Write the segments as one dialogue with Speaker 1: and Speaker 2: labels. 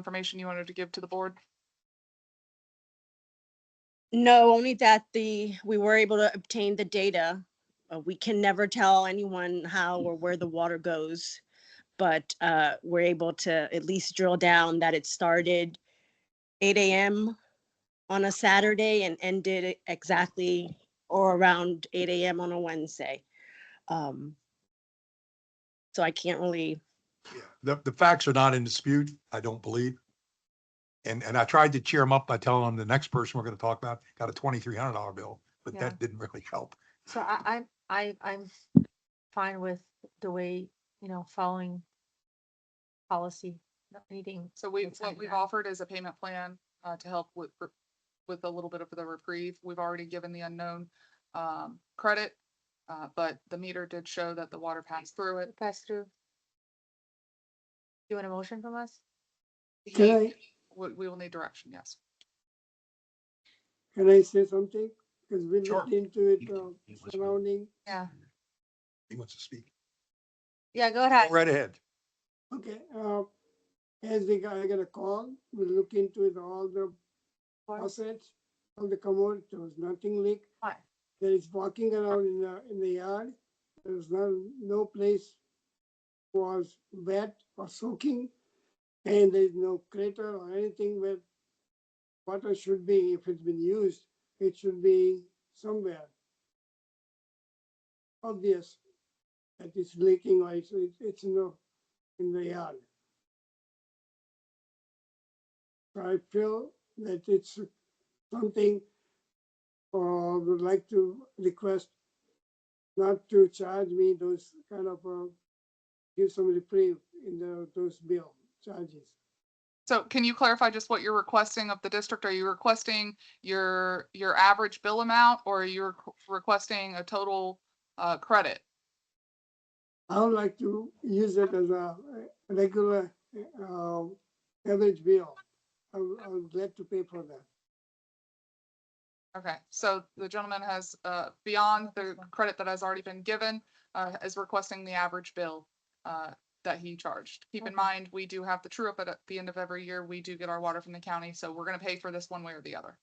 Speaker 1: information you wanted to give to the board?
Speaker 2: No, only that the, we were able to obtain the data. Uh, We can never tell anyone how or where the water goes. But uh, we're able to at least drill down that it started eight AM on a Saturday and ended e, exactly or around eight AM on a Wednesday. Um, So I can't really,
Speaker 3: Yeah, The, the facts are not in dispute, I don't believe. And, and I tried to cheer him up by telling him the next person we're going to talk about got a twenty-three hundred dollar bill, but
Speaker 4: Yeah.
Speaker 3: that didn't really help.
Speaker 4: So I, I'm, I, I'm fine with the way, you know, following policy, not needing.
Speaker 1: So we,
Speaker 4: It's
Speaker 1: what
Speaker 4: under
Speaker 1: we've
Speaker 4: that.
Speaker 1: offered is a payment plan uh, to help with, re- with a little bit of the reprieve. We've already given the unknown um, credit. uh, But the meter did show that the water passed through it.
Speaker 4: Pass through. You want a motion from us?
Speaker 5: Can I,
Speaker 1: We, we will need direction, yes.
Speaker 5: can I say something? Because we
Speaker 3: Sure.
Speaker 5: looked into it,
Speaker 3: You can-
Speaker 5: uh,
Speaker 3: you can-
Speaker 5: surrounding,
Speaker 4: Yeah,
Speaker 3: He wants to speak.
Speaker 4: yeah, go
Speaker 3: Go
Speaker 4: ahead.
Speaker 3: Right ahead.
Speaker 5: okay, uh, as we got, I got a call, we look into it, all the
Speaker 4: Or-
Speaker 5: faucets, all the commode, there was nothing leak.
Speaker 4: Fine.
Speaker 5: There is walking around in the, in the yard, there was no, no place was wet or soaking, and there's no crater or anything where water should be, if it's been used, it should be somewhere. Obvious that it's leaking or it's, it's- it's in the, in the yard. So I feel that it's something or would like to request not to charge me those kind of, uh, give some reprieve in the, those bill charges.
Speaker 1: So can you clarify just what you're requesting of the district? Are you requesting your, your average bill amount or you're requesting a total uh, credit?
Speaker 5: I would like to use it as a uh, regular uh, average bill. I'm, I'm glad to pay for that.
Speaker 1: Okay, so the gentleman has, uh, beyond the credit that has already been given, uh, is requesting the average bill, uh, that he charged. Keep in
Speaker 4: Okay.
Speaker 1: mind, we do have the true up at, at the end of every year. We do get our water from the county, so we're gonna pay for this one way or the other.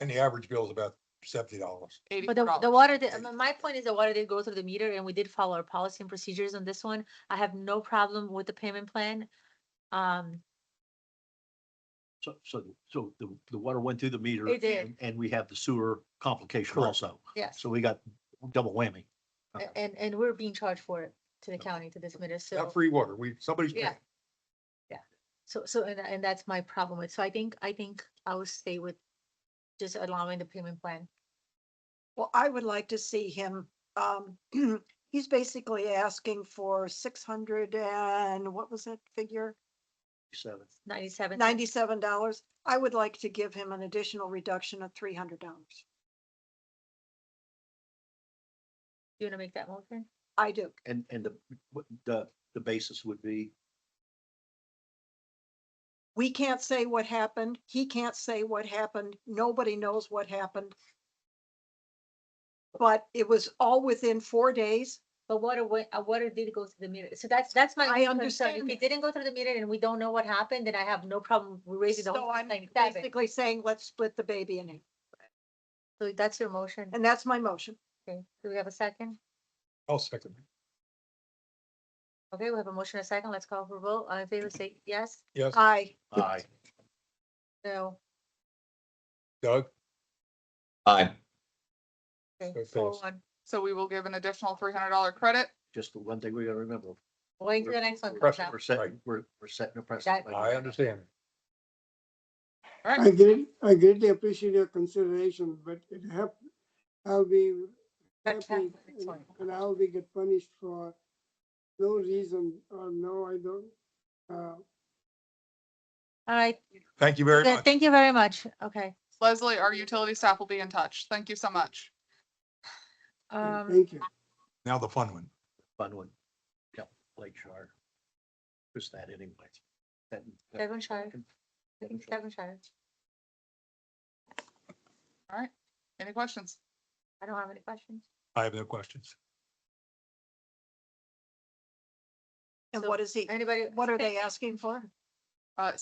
Speaker 3: And the average bill is about seventy dollars.
Speaker 4: But the, the
Speaker 1: $84.
Speaker 4: water, did- I mean, my point is the water did go through the meter and we did follow our policy and procedures on this one. I have no problem with the payment plan. Um,
Speaker 6: So, so, so the, the water went through the meter.
Speaker 4: It did.
Speaker 6: and- And we have the sewer complication
Speaker 3: Correct.
Speaker 6: also.
Speaker 4: Yes.
Speaker 6: So we got double whammy.
Speaker 4: a- and, and we're being charged for it to the county, to this meter, so.
Speaker 3: Not free water. We, somebody's
Speaker 4: Yeah.
Speaker 3: paying.
Speaker 4: So, so, and, and that's my problem with, so I think, I think I would stay with just allowing the payment plan.
Speaker 7: Well, I would like to see him, um, he's basically asking for six hundred and, what was that figure?
Speaker 6: Seven.
Speaker 4: Ninety-seven.
Speaker 7: Ninety-seven dollars. I would like to give him an additional reduction of three hundred dollars.
Speaker 4: Do you want to make that motion?
Speaker 7: I do.
Speaker 6: And, and the, what the, the basis would be,
Speaker 7: We can't say what happened. He can't say what happened. Nobody knows what happened. But it was all within four days.
Speaker 4: But water went, uh, water did go through the meter, so that's, that's my.
Speaker 7: I
Speaker 4: only concern.
Speaker 7: understand
Speaker 4: If it
Speaker 7: that.
Speaker 4: didn't go through the meter and we don't know what happened, then I have no problem raising the
Speaker 7: So
Speaker 4: whole
Speaker 7: I'm
Speaker 4: ninety-seven.
Speaker 7: basically saying, let's split the baby in half.
Speaker 4: So that's your motion.
Speaker 7: And that's my motion.
Speaker 4: Okay, do we have a second?
Speaker 3: I'll second. it.
Speaker 4: Okay, we have a motion, and a second. Let's call for a vote. All in favor, say yes,
Speaker 3: Yes,
Speaker 7: Aye.
Speaker 6: aye,
Speaker 4: no.
Speaker 3: Doug?
Speaker 8: Aye.
Speaker 4: Okay,
Speaker 3: Go
Speaker 4: four
Speaker 3: first.
Speaker 4: one.
Speaker 1: So we will give an additional three hundred dollar credit.
Speaker 6: just the one thing we gotta remember.
Speaker 4: Wait till the next one
Speaker 6: we're-
Speaker 4: comes
Speaker 3: Pressure.
Speaker 4: out.
Speaker 6: We're setting,
Speaker 3: Right.
Speaker 6: we're, we're setting a
Speaker 4: That-
Speaker 6: precedent. by
Speaker 3: I
Speaker 6: doing that.
Speaker 3: understand.
Speaker 1: All
Speaker 5: I
Speaker 1: right,
Speaker 5: greatly, I greatly appreciate your consideration, but it hap, I'll be
Speaker 4: That's
Speaker 5: happy
Speaker 4: fine.
Speaker 5: and- and I'll be get punished for no reason or no, I don't. Uh,
Speaker 4: All right,
Speaker 3: Thank you very
Speaker 4: then
Speaker 3: much.
Speaker 4: thank you very much. Okay,
Speaker 1: Leslie, our utility staff will be in touch. Thank you so much.
Speaker 4: um,
Speaker 5: Thank you.
Speaker 3: Now the fun one.
Speaker 6: Fun one. Yep, Lake Shore. Who's that anyway? That- that-
Speaker 4: Devonshire, Devonshire.
Speaker 1: All right, any questions?
Speaker 4: I don't have any questions.
Speaker 3: I have no questions.
Speaker 7: And
Speaker 4: So
Speaker 7: what is he,
Speaker 4: Anybody?
Speaker 7: what are they asking for?
Speaker 1: Uh,